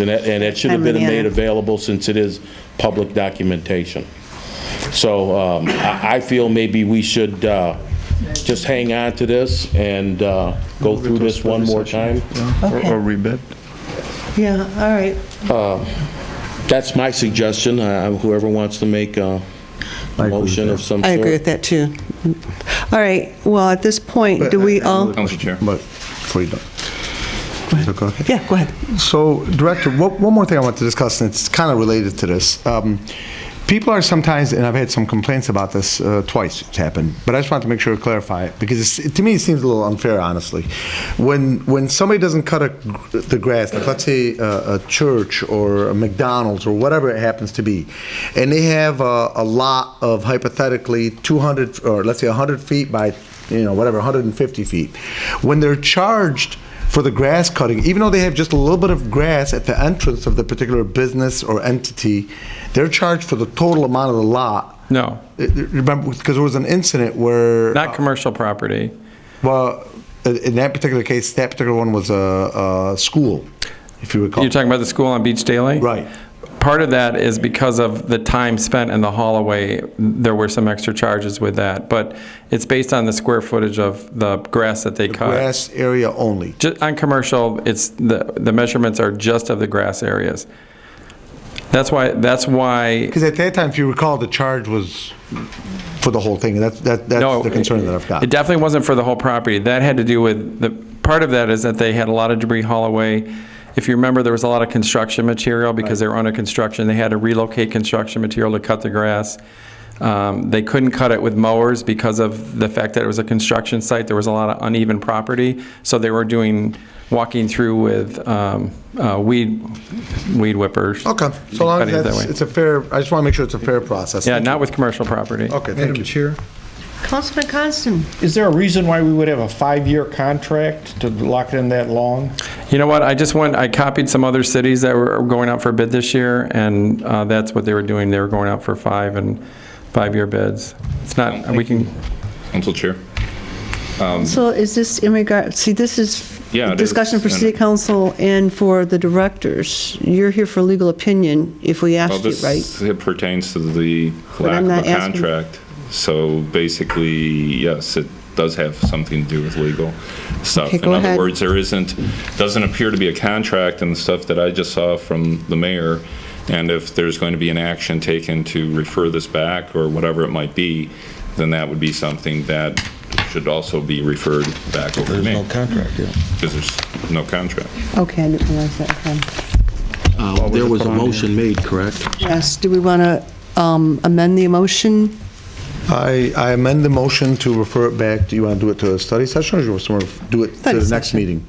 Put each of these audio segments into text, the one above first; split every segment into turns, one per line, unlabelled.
And it, and it should have
I'm
been
Leanna.
made available since it is public documentation. So um, I, I feel maybe we should uh, just hang on to this and uh, go through this one more time.
Or- Okay. or
rebid.
Yeah, all right.
That's my suggestion, Uh, whoever wants to make a
I agree with
motion of
that.
some
I agree
sort.
with that, too. All right, well, at this point, do we all,
Council Chair.
But before you don't. Go ahead.
yeah, go ahead.
So, Director, one one more thing I want to discuss, and it's kind of related to this. Um, People are sometimes, and I've had some complaints about this uh, twice, it's happened, but I just want to make sure to clarify it, because it's- to me, it seems a little unfair, honestly. When, when somebody doesn't cut a gr- the grass, like let's say uh, a a church or a McDonald's or whatever it happens to be, and they have a a lot of hypothetically 200, or let's say 100 feet by, you know, whatever, 150 feet, when they're charged for the grass cutting, even though they have just a little bit of grass at the entrance of the particular business or entity, they're charged for the total amount of the lot.
No,
Uh, Remember, because there was an incident where,
not commercial property.
well, in in that particular case, that particular one was a, a school, if you recall.
You're talking about the school on Beach Daily?
Right.
Part of that is because of the time spent in the hallway, there were some extra charges with that. But it's based on the square footage of the grass that they cut.
Grass area only.
Ju- On commercial, it's, the, the measurements are just of the grass areas. That's why, that's why,
Because at that time, if you recall, the charge was for the whole thing. That's, that,
no.
that's the concern that I've got.
It definitely wasn't for the whole property. That had to do with, the, part of that is that they had a lot of debris hallway. If you remember, there was a lot of construction material because they were under construction. They had to relocate construction material to cut the grass. Um, They couldn't cut it with mowers because of the fact that it was a construction site. There was a lot of uneven property, so they were doing, walking through with um, uh, weed, weed whippers.
Okay, so long as
Cutting it that
that's,
way.
it's a fair, I just want to make sure it's a fair process.
Yeah, not with commercial property.
Okay, thank
Madam
you.
Chair,
Councilman Constant?
is there a reason why we would have a five-year contract to lock it in that long?
You know what, I just went, I copied some other cities that were going out for bid this year, and uh, that's what they were doing, they were going out for five and five-year bids. It's not, we can,
Council Chair.
So is this in regard, see, this is
Yeah, it is.
discussion for
And-
city council and for the directors. You're here for legal opinion, if we
Well,
asked you,
this
right?
it pertains to the
But
lack
I'm
of a
not asking-
contract. So basically, yes, it does have something to do with legal stuff.
Okay, go
In
ahead.
other words, there isn't, doesn't appear to be a contract in the stuff that I just saw from the mayor. And if there's going to be an action taken to refer this back or whatever it might be, then that would be something that should also be referred back over to me. There's no contract, yeah. Because there's no contract.
Okay, I didn't realize that. Okay.
Uh, There was a motion made, correct?
Yes, do we want to um, amend the motion?
I, I amend the motion to refer it back, do you want to do it to a study session, or do you want to do it to
Study
the next
session.
meeting?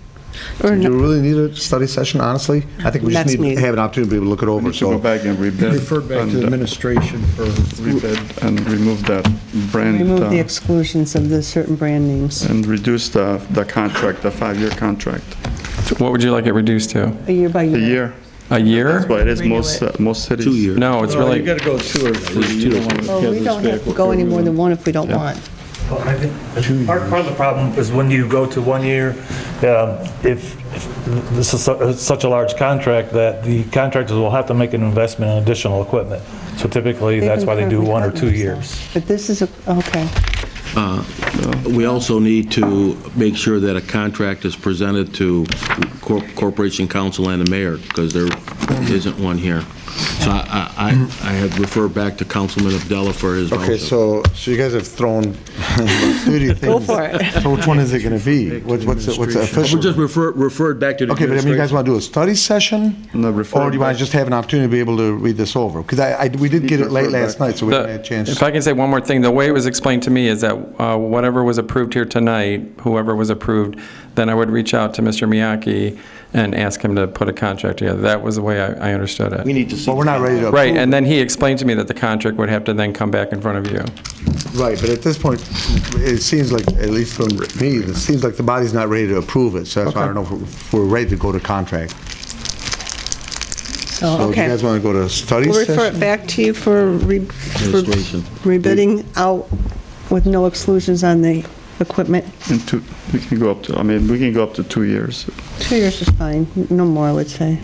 Or
Do you
no-
really need a study session, honestly? I think we
Next
just need
meeting.
to have an opportunity to be able to look it over,
So go
so.
back and rebid.
Refer back to
and, uh,
administration for
Rebid and remove that brand.
remove the
uh,
exclusions of the certain brand names?
And reduce the, the contract, the five-year contract,
what would you like it reduced to?
A year by
a
year?
year.
A year?
But it is most, uh, most cities.
Two years.
No, it's really,
to go two or three. You don't want to
Well, we don't have to go any more than one if we don't want.
Well, I think Part part of the problem is when you go to one year, um, if if this is su- it's such a large contract that the contractors will have to make an investment in additional equipment. So typically, that's why they do one or two years.
But this is, a okay.
We also need to make sure that a contract is presented to Cor- Corporation Council and the mayor, because there isn't one here. So I, I, I I had referred back to Councilman Abdullah for his motion.
Okay, so, so you guys have thrown thirty things. Go
for it.
So which one is it gonna be? What- What's, the- what's the
We just
official?
refer referred back to the
Okay, but I mean, you guys want to do a study session?
No, refer
Or do you want
back.
to just have an opportunity to be able to read this over? Because I, I, we did get it late
Refer
last
back.
night, so we didn't have a chance.
the- if I can say one more thing, the way it was explained to me is that uh, whatever was approved here tonight, whoever was approved, then I would reach out to Mr. Miyake and ask him to put a contract together. That was the way I I understood
We
it.
need to see.
But we're not ready to.
Right,
approve
and then he explained to me that the contract would have to then come back in front of you.
Right, but at this point, it seems like, at least from me, it seems like the body's not ready to approve it, so that's why I don't know if we're- if we're ready to go to contract. So do you guys want to go to study
We'll refer it
session?
back to you for re- for
Illustration.
rebidding out with no exclusions on the equipment.
And two, we can go up to, I mean, we can go up to two years.
Two years is fine, no more, I would say.